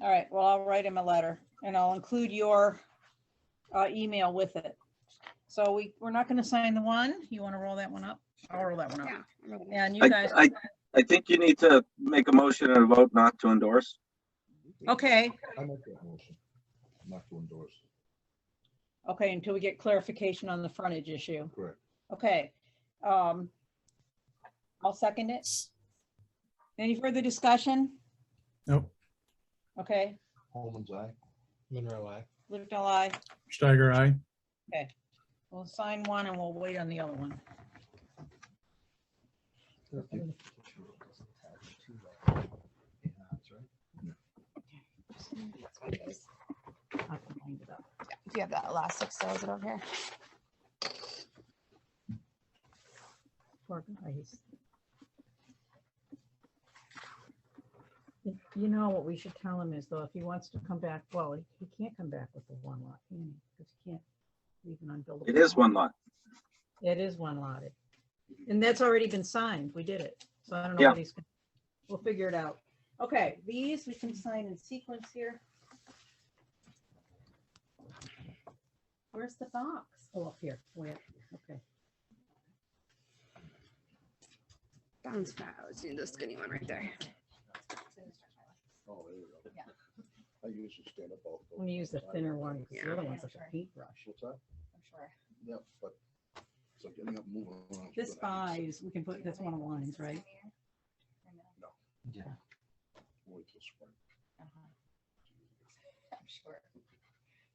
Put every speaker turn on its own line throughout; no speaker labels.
All right, well, I'll write him a letter and I'll include your uh, email with it. So we, we're not going to sign the one. You want to roll that one up? I'll roll that one up.
Yeah. I'm ready.
And you
I,
guys,
I, I think you need to make a motion and a vote not to endorse.
okay,
I make that motion, not to endorse,
okay, until we get clarification on the frontage issue.
correct.
Okay. um, I'll second it. Any further discussion?
Nope.
Okay,
Holman's eye.
Monroe, I.
lived a lie.
Steiger, aye.
We'll sign one and we'll wait on the other one.
That's what it is.
I can wind it up.
Do you have that elastic still? Is it over here?
Poor guys. You you know, what we should tell him is though, if he wants to come back, well, he- he can't come back with the one lot, can he? Because he can't leave an unbuildable.
It is
lot.
one lot.
It is one lotted. And that's already been signed. We did it. So I don't know
Yeah.
what he's, gonna- we'll figure it out. Okay, these we can sign in sequence here. Where's the box? Oh, up here. Where? Okay.
Bounce back. I was doing the skinny one right there.
Oh, there you go.
Yeah.
I usually stand up all.
I'm gonna use the thinner one, because the
Yeah.
other one's like a paintbrush.
What's that?
I'm sure.
Yeah, but, so getting up, and moving around.
This buys, we can put, that's one of the lines, right?
Uh-huh.
Yeah.
Wait till spring.
I'm sure.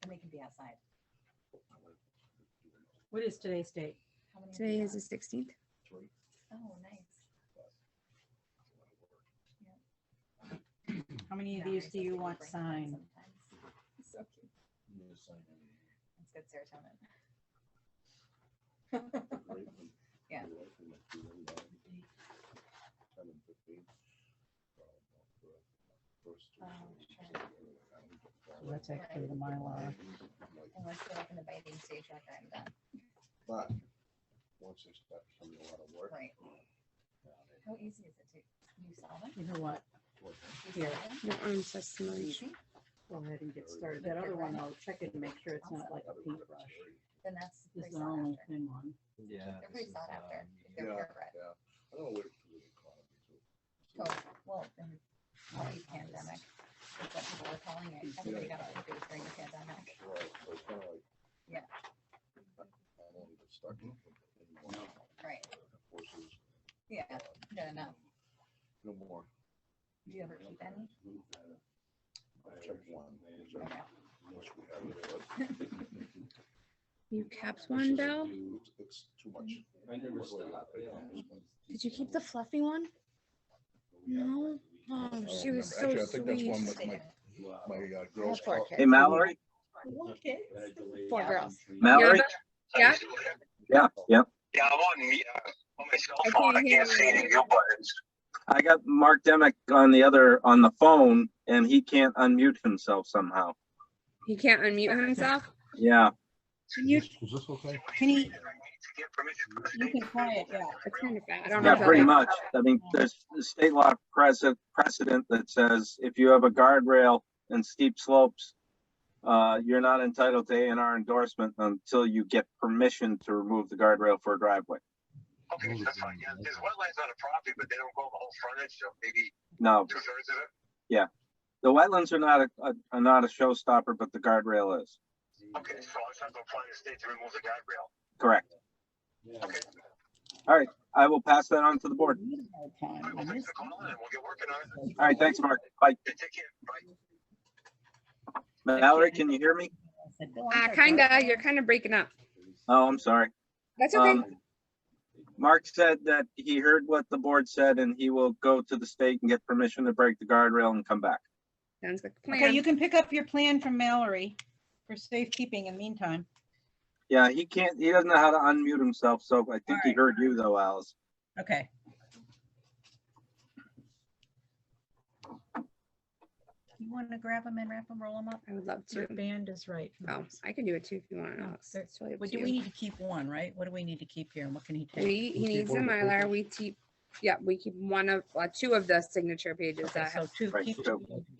And they can be outside.
What is today's date?
Today is the sixteenth.
Three.
Oh, nice.
How many of these do you want signed?
So cute.
You just sign it,
It's good serotonin.
right? And
Yeah.
you're right, and like, do them, uh, 10 and 15. Uh, the first two
Oh,
things,
sure.
so, uh, I don't get that.
So that's actually the Mylar.
Like,
Unless you're like in the biting stage, like I'm done.
But, once they start coming a lot of work. um,
Right. How easy is it to, you saw them?
You know what?
work.
Here,
Your arms are so
Easy. go ahead and get started. That other one, I'll check it and make sure it's not like a paintbrush.
Then that's.
This
pretty
is the
sought
only
after.
thin one.
Yeah.
They're
this is,
pretty sought after.
um,
if
Yeah,
They're purebred.
yeah. I don't wait for the economy to.
Oh, well, in the pandemic, is what people were calling it. Everybody got all the during the pandemic.
Right, so it's kinda like-
Yeah.
I don't even start looking anymore.
Right.
Horses,
Yeah.
uh,
No, no.
No more.
Do you ever keep any?
I checked one. These are-
Okay.
unless we have it, but
You kept
this
one,
is a
Bill?
huge- It's too much.
I never
Work like
stopped,
that.
yeah.
Did you keep the fluffy one? No? Oh,
don't
she was so
remember. Actually, I think that's
sweet.
one with
They
my,
do.
Wow.
my uh,
I
girls.
have four
Scout-
kids.
Hey, Mallory,
Four
Yeah.
girls.
Mallory?
Yeah?
Yeah, yeah.
Yeah, I'm on mute, uh, on my cell
I
phone. I
can't hear
can't see
you.
any of your buttons.
I got Mark Demick on the other, on the phone, and he can't unmute himself somehow.
He can't unmute himself?
Yeah,
Can you,
Is this okay?
Can you, you
You
can try it, yeah.
it's kind of bad. I don't know.
yeah,
if
pretty
I'll-
much. I mean, there's state law precedent, precedent that says if you have a guardrail and steep slopes, uh, you're not entitled to A and R endorsement until you get permission to remove the guardrail for a driveway.
Okay, that's fine, yeah, there's wetlands on the property, but they don't go the whole frontage, so maybe
No,
two thirds of it.
the wetlands are not, a- a- are not a showstopper, but the guardrail is.
Okay, so I just have to apply to the state to remove the guardrail.
Correct.
Yeah.
Okay,
I will pass that on to the board.
Hard time.
all right, well, thanks for calling and we'll get working on it.
All right, thanks, Mark. Bye.
Yeah, Take care, bye.
Mallory, can you hear me?
Uh, kinda, you're kind of breaking up.
Oh, I'm sorry.
That's okay.
Um, Mark said that he heard what the board said and he will go to the state and get permission to break the guardrail and come back.
Sounds like a
Okay, you
plan.
can pick up your plan from Mallory for safekeeping in the meantime.
Yeah, he can't, he doesn't know how to unmute himself, so I think he
Alright.
heard you though, Alice.
Okay. You want to grab them and wrap them, roll them up?
I would love
Your
to.
band is right.
Oh, I can do it too if you want. Alex.
there-
It's totally up
But
to
do we
you.
need to keep one, right? What do we need to keep here and what can he take?
We, he
keep
needs a
one of the
Mylar.
papers.
We keep, yeah, we keep one of, uh, two of the signature pages
Okay,
that have
so two,
Right,
keep
so-
two.